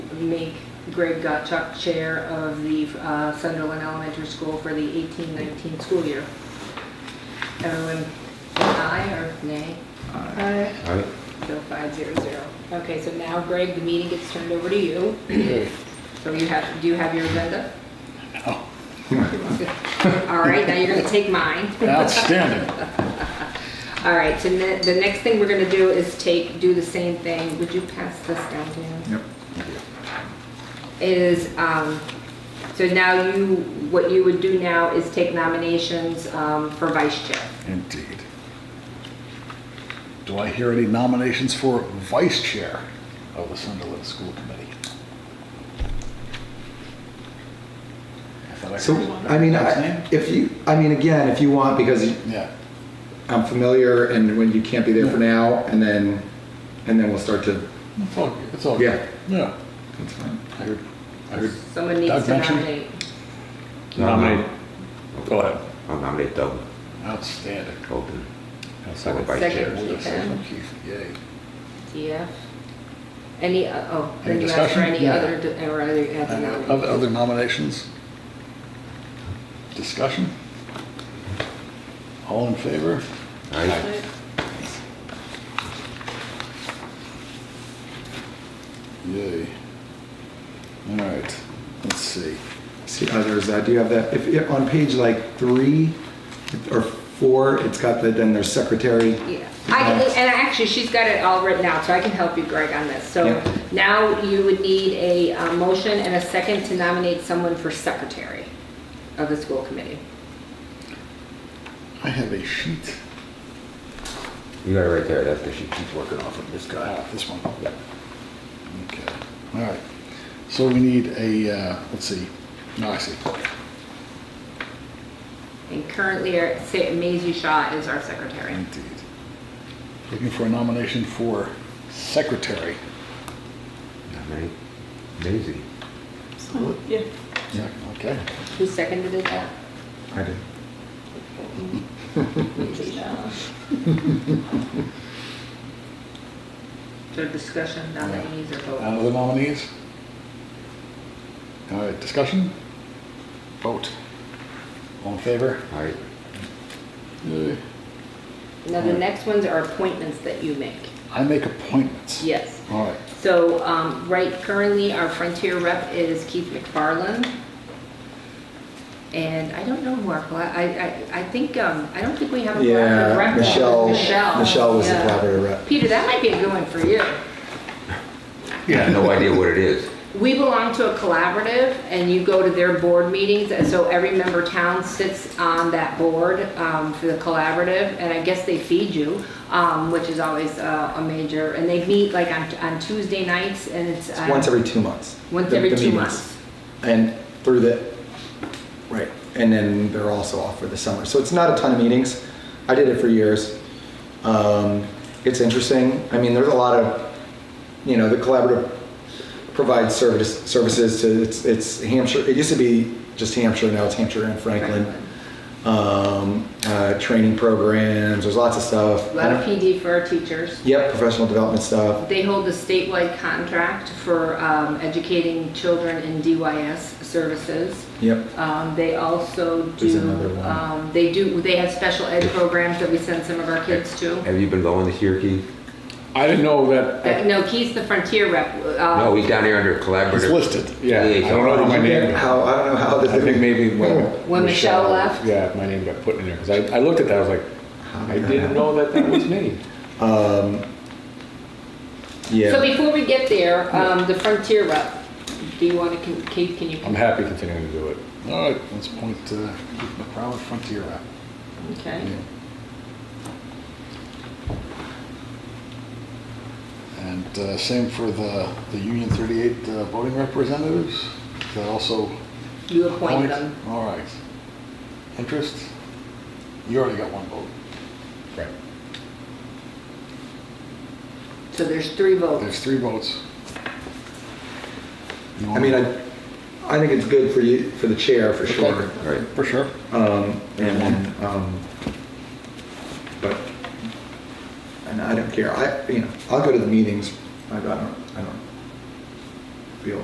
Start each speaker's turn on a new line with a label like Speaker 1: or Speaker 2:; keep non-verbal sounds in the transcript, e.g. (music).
Speaker 1: make Greg Gottschalk Chair of the uh, Sunderland Elementary School for the 18-19 school year. Everyone, aye or nay?
Speaker 2: Aye.
Speaker 3: Aye.
Speaker 1: So five zero zero. Okay, so now Greg, the meeting gets turned over to you. So you have, do you have your agenda?
Speaker 2: No.
Speaker 1: (laughs) All right, now you're gonna take mine.
Speaker 2: Outstanding.
Speaker 1: All right, so ne- the next thing we're gonna do is take, do the same thing. Would you pass this down to him?
Speaker 4: Yep.
Speaker 1: is, um, so now you, what you would do now is take nominations um, for vice chair.
Speaker 2: Indeed. Do I hear any nominations for vice chair of the Sunderland School Committee? I thought I
Speaker 4: So,
Speaker 2: heard one.
Speaker 4: I mean,
Speaker 2: That's
Speaker 4: I-
Speaker 2: name?
Speaker 4: if you, I mean, again, if you want, because you-
Speaker 2: Yeah,
Speaker 4: I'm familiar and when you can't be there for now, and then, and then we'll start to,
Speaker 2: it's all, good, it's all. good.
Speaker 4: Yeah.
Speaker 2: Yeah,
Speaker 4: that's fine.
Speaker 2: I heard, I heard.
Speaker 1: Someone needs
Speaker 2: Doug
Speaker 1: to
Speaker 2: mentioned-
Speaker 1: nominate.
Speaker 3: Nominate.
Speaker 5: Go ahead.
Speaker 3: I'll nominate Doug
Speaker 2: Outstanding.
Speaker 3: Colton.
Speaker 2: I'll
Speaker 3: Second vice
Speaker 1: Second.
Speaker 3: chair.
Speaker 2: Second,
Speaker 1: Ethan.
Speaker 2: Keith, yay.
Speaker 1: TF. Any, uh, oh, then
Speaker 2: Any
Speaker 1: you ask for
Speaker 2: discussion?
Speaker 1: any
Speaker 2: Yeah. Uh,
Speaker 1: other, d- or other, other
Speaker 2: Other
Speaker 1: nominations.
Speaker 2: other nominations? Discussion? All in favor?
Speaker 3: Aye.
Speaker 2: Yay. All right, let's see.
Speaker 4: See others, uh, do you have that, if, if on page like three or four, it's got the, then there's secretary.
Speaker 1: Yeah, I,
Speaker 2: Uh,
Speaker 1: can- and actually, she's got it all written out, so I can help you, Greg, on this. So
Speaker 4: Yeah.
Speaker 1: now you would need a uh, motion and a second to nominate someone for secretary of the school committee.
Speaker 2: I have a sheet.
Speaker 3: You got it right there. That's the sheet she's working off of, this guy.
Speaker 2: Ah, This one.
Speaker 3: Yep.
Speaker 2: Okay, all right. So we need a, uh, let's see, no, I see.
Speaker 1: And currently, our- Sa- Maisie Shaw is our secretary.
Speaker 2: Indeed. Looking for a nomination for secretary.
Speaker 3: Nominate Maisie.
Speaker 6: Yeah.
Speaker 2: Yeah. Okay.
Speaker 1: Who seconded it?
Speaker 4: I did.
Speaker 1: (laughs) So discussion, nominees, or
Speaker 2: And
Speaker 1: vote?
Speaker 4: Uh,
Speaker 2: other nominees? All right, discussion? Vote. All in favor?
Speaker 3: Aye.
Speaker 1: Now, the next ones are appointments that you make.
Speaker 2: I make appointments.
Speaker 1: Yes.
Speaker 2: All right,
Speaker 1: So, um, right, currently, our Frontier rep is Keith McFarland. And I don't know who our, colla- I, I, I think, um, I don't think we have a collaborative
Speaker 4: Yeah,
Speaker 1: rep.
Speaker 4: Michelle,
Speaker 1: Michelle.
Speaker 4: Michelle was the
Speaker 1: yeah.
Speaker 4: collaborative rep.
Speaker 1: Peter, that might be a good one for you.
Speaker 3: I have no idea what it is.
Speaker 1: We belong to a collaborative, and you go to their board meetings, and so every member town sits on that board um, for the collaborative, and I guess they feed you, um, which is always uh, a major, and they meet like on on Tuesday nights, and it's.
Speaker 4: It's
Speaker 1: uh,
Speaker 4: once every two months.
Speaker 1: Once
Speaker 4: the-
Speaker 1: every
Speaker 4: the
Speaker 1: two
Speaker 4: meetings.
Speaker 1: months.
Speaker 4: And through the, right, and then they're also off for the summer. So it's not a ton of meetings. I did it for years. Um, it's interesting. I mean, there's a lot of, you know, the collaborative provides service, services to, it's, it's Hampshire, it used to be just Hampshire, now it's Hampshire and Franklin. Um, uh, training programs, there's lots of stuff.
Speaker 1: A lot of PD for our teachers.
Speaker 4: Yep, professional development stuff.
Speaker 1: They hold a statewide contract for um, educating children in DYS services.
Speaker 4: Yep.
Speaker 1: Um, They also
Speaker 4: There's
Speaker 1: do,
Speaker 4: another one.
Speaker 1: um, they do, they have special ed programs that we send some of our kids to.
Speaker 3: Have you been going this year, Keith?
Speaker 7: I didn't know that.
Speaker 1: Uh, No, Keith's the Frontier rep. uh,
Speaker 3: No, he's down here under collaborative.
Speaker 2: It's listed.
Speaker 7: Yeah, I don't
Speaker 3: Liaison.
Speaker 7: know how my name. Got,
Speaker 4: How, I don't know how this.
Speaker 7: I
Speaker 4: (laughs)
Speaker 7: think maybe when
Speaker 1: When Michelle left?
Speaker 7: Yeah, my name got put in there because I, I looked at that. I was like, I didn't know that that was me.
Speaker 4: Um, Yeah.
Speaker 1: So before we get there, um, the Frontier rep, do you want to, Keith, can you?
Speaker 7: I'm happy continuing to do it.
Speaker 2: all right, let's point to McCrowell Frontier app.
Speaker 1: Okay.
Speaker 2: And uh, same for the, the Union 38 uh, voting representatives. That also.
Speaker 1: You appoint them.
Speaker 2: All right. Interest? You already got one vote.
Speaker 7: Right.
Speaker 1: So there's three votes.
Speaker 2: There's three votes. You
Speaker 4: I
Speaker 2: want-
Speaker 4: mean, I, I think it's good for you, for the chair, for sure.
Speaker 3: Right.
Speaker 2: For sure.
Speaker 4: Um, and then, um, but, and I don't care, I, you know, I'll go to the meetings, I I don't, I don't